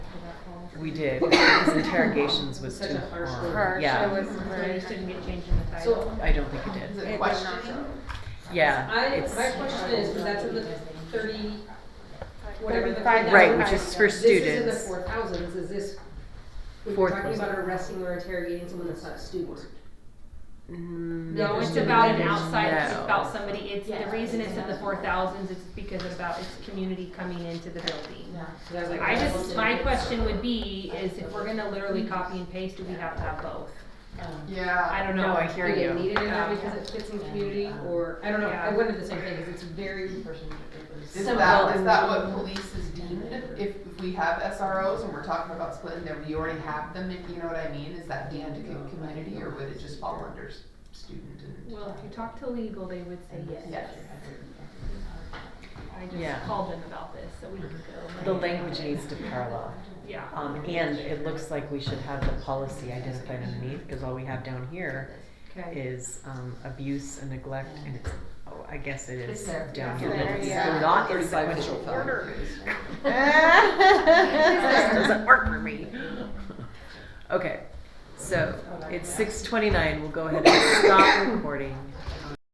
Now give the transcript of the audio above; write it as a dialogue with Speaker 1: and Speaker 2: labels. Speaker 1: We did. His interrogations was
Speaker 2: Such
Speaker 1: too
Speaker 2: a harsh
Speaker 1: hard.
Speaker 2: word.
Speaker 3: Harsh,
Speaker 1: Yeah.
Speaker 3: I was
Speaker 2: So it
Speaker 3: worried.
Speaker 2: just didn't get changed in the
Speaker 4: So-
Speaker 2: title.
Speaker 1: I don't think it
Speaker 4: Is
Speaker 1: did.
Speaker 4: it
Speaker 3: It was not
Speaker 4: questioning?
Speaker 1: Yeah.
Speaker 2: I,
Speaker 1: it's-
Speaker 2: my question is, because that's in the thirty, whatever the.
Speaker 3: Five
Speaker 1: Right,
Speaker 3: thousand
Speaker 1: which
Speaker 3: five
Speaker 1: is for
Speaker 2: This is in the
Speaker 1: students.
Speaker 2: four thousands, is this, we
Speaker 1: Four
Speaker 2: we're talking
Speaker 1: thousand.
Speaker 2: about arresting or interrogating someone that's not a student.
Speaker 1: Mm,
Speaker 5: No, it's about an outside, it's
Speaker 1: No.
Speaker 5: about somebody, it's, the
Speaker 4: Yeah.
Speaker 5: reason it's in the four thousands is because about its community coming into the building.
Speaker 4: Yeah.
Speaker 2: So that's like-
Speaker 5: I just, my question would be, is if we're gonna literally copy and paste, do we have to have both? I
Speaker 4: Yeah.
Speaker 5: don't
Speaker 1: No,
Speaker 5: know.
Speaker 1: I hear
Speaker 2: Are you
Speaker 1: you.
Speaker 2: needed in there
Speaker 5: Yeah.
Speaker 2: because it fits in community, or, I don't know, I
Speaker 5: Yeah.
Speaker 2: wondered the same thing, because it's very.
Speaker 4: Is
Speaker 2: Some-
Speaker 4: that, is that what police is deemed? If, if we have SROs and we're talking about splitting them, we already have them, if you know what I mean? Is that deemed a good community or would it just fall under s- student and?
Speaker 5: Well, if you talk to legal, they would say yes.
Speaker 4: Yes.
Speaker 5: I
Speaker 1: Yeah.
Speaker 5: just called them about this, so we could
Speaker 1: The
Speaker 5: go. like,
Speaker 1: language needs to parallel.
Speaker 5: Yeah.
Speaker 1: Um, and it looks like we should have the policy identified underneath, because all we have down here
Speaker 5: Okay.
Speaker 1: is, um, abuse and neglect, and it's, oh, I guess it
Speaker 2: It's
Speaker 1: is
Speaker 2: there.
Speaker 1: down here.
Speaker 3: It's there,
Speaker 1: It's
Speaker 3: yeah.
Speaker 1: Not
Speaker 4: Thirty-five
Speaker 1: inside
Speaker 4: official
Speaker 1: the
Speaker 4: felony
Speaker 1: order.
Speaker 4: case.
Speaker 1: This doesn't work for me. Okay, so it's six twenty-nine, we'll go ahead and stop recording.